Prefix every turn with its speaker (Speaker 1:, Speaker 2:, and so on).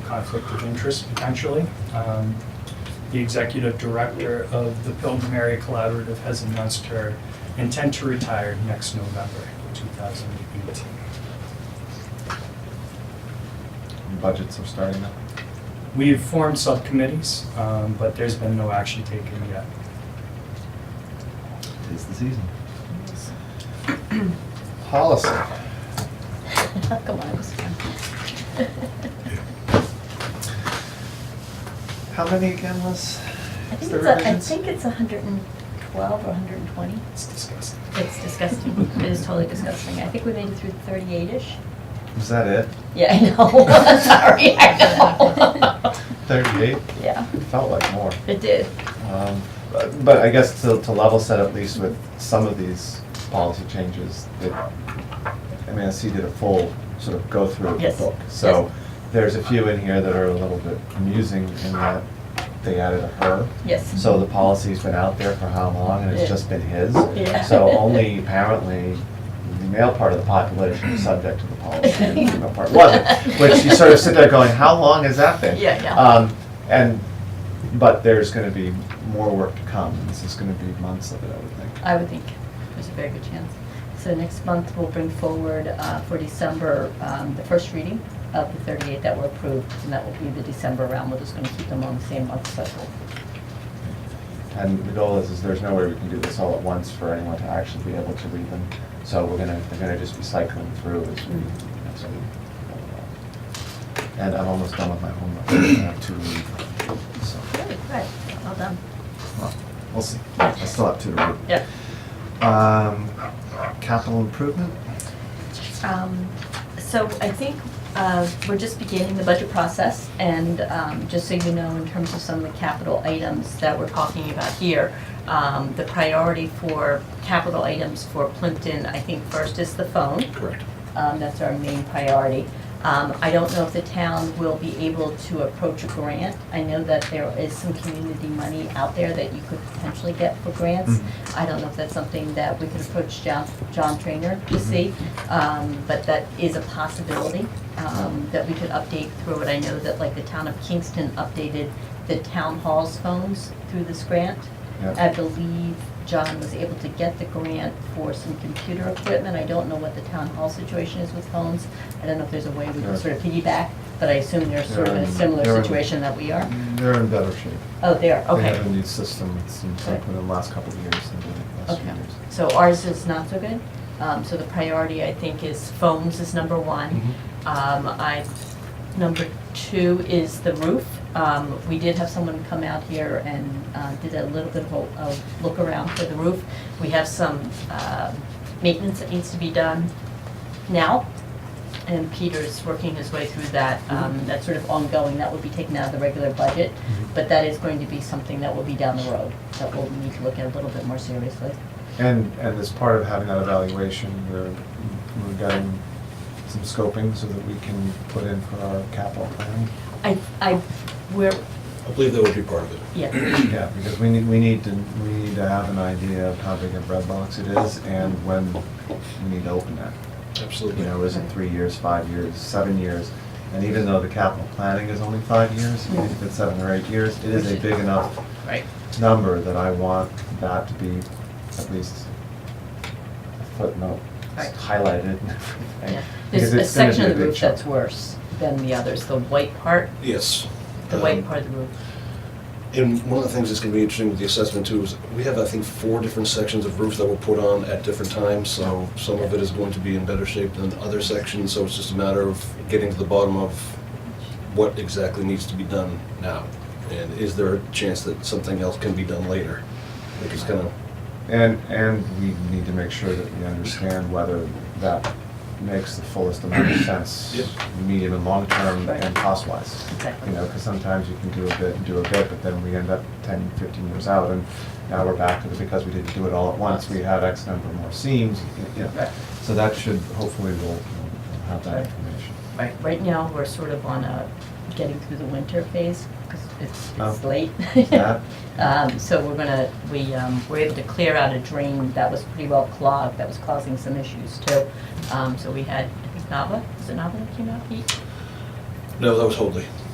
Speaker 1: conflict of interest potentially. Um, The executive director of the Pilgrim Area Collaborative has announced her intent to retire next November 2018.
Speaker 2: And Budgets are starting now.
Speaker 1: We've formed subcommittees, um, but there's been no action taken yet.
Speaker 2: It's the season. Policy.
Speaker 3: Come on, it was fun.
Speaker 2: How many again was?
Speaker 3: I
Speaker 2: is
Speaker 3: think
Speaker 2: there
Speaker 3: it's, a- I
Speaker 2: revisions?
Speaker 3: think it's hundred and twelve or hundred and twenty.
Speaker 1: It's disgusting.
Speaker 3: It's disgusting. It is totally disgusting. I think we made it through thirty-eight-ish.
Speaker 2: Is that it?
Speaker 3: Yeah, I know. Sorry, I know.
Speaker 2: Thirty-eight?
Speaker 3: Yeah,
Speaker 2: It felt like more.
Speaker 3: it did.
Speaker 2: Um, But but I guess to, to level set at least with some of these policy changes, that MASC did a full sort of go through of the
Speaker 3: Yes,
Speaker 2: book.
Speaker 3: yes.
Speaker 2: So there's a few in here that are a little bit amusing in that they added a her.
Speaker 3: Yes.
Speaker 2: So the policy's been out there for how long, and it's
Speaker 3: Yeah.
Speaker 2: just been his?
Speaker 3: Yeah.
Speaker 2: So only apparently the male part of the population is subject to the policy, and the female part wasn't. Which you sort of sit there going, how long has that been?
Speaker 3: Yeah, yeah.
Speaker 2: Um, and, but there's gonna be more work to come, and this is gonna be months of it, I would think.
Speaker 3: I would think there's a very good chance. So next month, we'll bring forward uh, for December, um, the first reading of the 38 that were approved, and that will be the December round. We're just going to keep them on the same month cycle.
Speaker 2: And the goal is, is there's no way we can do this all at once for anyone to actually be able to read them. So we're gonna, they're gonna just be cycling through as we, as we. And I'm almost done with my homework, I have two to read, so.
Speaker 3: Good, good. Well done.
Speaker 2: Well, We'll see. I still have two to
Speaker 3: Yeah.
Speaker 2: read. Um, capital improvement?
Speaker 3: Um, So I think uh, we're just beginning the budget process, and um, just so you know, in terms of some of the capital items that we're talking about here, um, the priority for capital items for Plimpton, I think first is the phone.
Speaker 2: Correct.
Speaker 3: Um, That's our main priority. Um, I don't know if the town will be able to approach a grant. I know that there is some community money out there that you could potentially get for grants. I don't know if that's something that we could approach John, John Trainer to see, um, but that is a possibility, um, that we could update through it. I know that like the town of Kingston updated the town hall's phones through this grant.
Speaker 2: Yeah.
Speaker 3: I believe John was able to get the grant for some computer equipment. I don't know what the town hall situation is with phones. I don't know if there's a way we
Speaker 2: Yeah.
Speaker 3: can sort of piggyback, but I assume they're sort of in
Speaker 2: Yeah,
Speaker 3: a similar
Speaker 2: they're in-
Speaker 3: situation that we are.
Speaker 2: They're in better shape.
Speaker 3: Oh, they are,
Speaker 2: They
Speaker 3: okay.
Speaker 2: have a new system, it seems like,
Speaker 3: Okay.
Speaker 2: within the last couple of years, than the last few
Speaker 3: Okay,
Speaker 2: years.
Speaker 3: so ours is not so good. Um, so the priority, I think, is phones is number one. Um, I, number two is the roof. Um, we did have someone come out here and, uh, did a little bit of a, a look around for the roof. We have some, um maintenance that needs to be done now. And Peter's working his way through that, um, that's sort of ongoing, that would be taken out of the regular budget, but that is going to be something that will be down the road, that we'll need to look at a little bit more seriously.
Speaker 2: And, and as part of having that evaluation, we're, we're getting some scoping so that we can put in for our capital planning.
Speaker 3: I, I, we're,
Speaker 4: I believe that would be part of it.
Speaker 3: yeah,
Speaker 2: Yeah, because we need, we need to, we need to have an idea of how big a bread box it is and when we need to open that.
Speaker 4: Absolutely.
Speaker 2: You know, is it three years, five years, seven years? And even though the capital planning is only five years, even if it's seven or eight years, it is a big enough
Speaker 3: right.
Speaker 2: number that I want that to be at least a footnote,
Speaker 3: Right.
Speaker 2: highlighted and everything.
Speaker 3: Yeah.
Speaker 2: because
Speaker 3: There's a
Speaker 2: it's gonna
Speaker 3: section
Speaker 2: be
Speaker 3: of the
Speaker 2: big
Speaker 3: roof that's
Speaker 2: chunk.
Speaker 3: worse than the others, the white part,
Speaker 4: Yes.
Speaker 3: the
Speaker 4: Um,
Speaker 3: white part of the roof.
Speaker 4: And one of the things that's gonna be interesting with the assessment too is we have, I think, four different sections of roofs that were put on at different times. So some of it is going to be in better shape than other sections, so it's just a matter of getting to the bottom of what exactly needs to be done now. And is there a chance that something else can be done later? Like it's kind of,
Speaker 2: And, and we need to make sure that we understand whether that makes the fullest amount of sense,
Speaker 4: Yep.
Speaker 2: medium and long term
Speaker 3: Right.
Speaker 2: and cost wise.
Speaker 3: Exactly.
Speaker 2: You know, because sometimes you can do a bit and do a bit, but then we end up 10, 15 years out, and now we're back to the, because we didn't do it all at once, we have X number more seams, you know.
Speaker 3: Right.
Speaker 2: So that should, hopefully, we'll we'll have that
Speaker 3: Right.
Speaker 2: information.
Speaker 3: Right, right now, we're sort of on a getting through the winter phase, because it's,
Speaker 2: Oh.
Speaker 3: it's late.
Speaker 2: Yeah.
Speaker 3: Um, so we're gonna, we, um, were able to clear out a drain that was pretty well clogged, that was causing some issues too. Um, so we had, I think Nava, is it Nava that came out, Pete?
Speaker 4: no, that was Hoadley.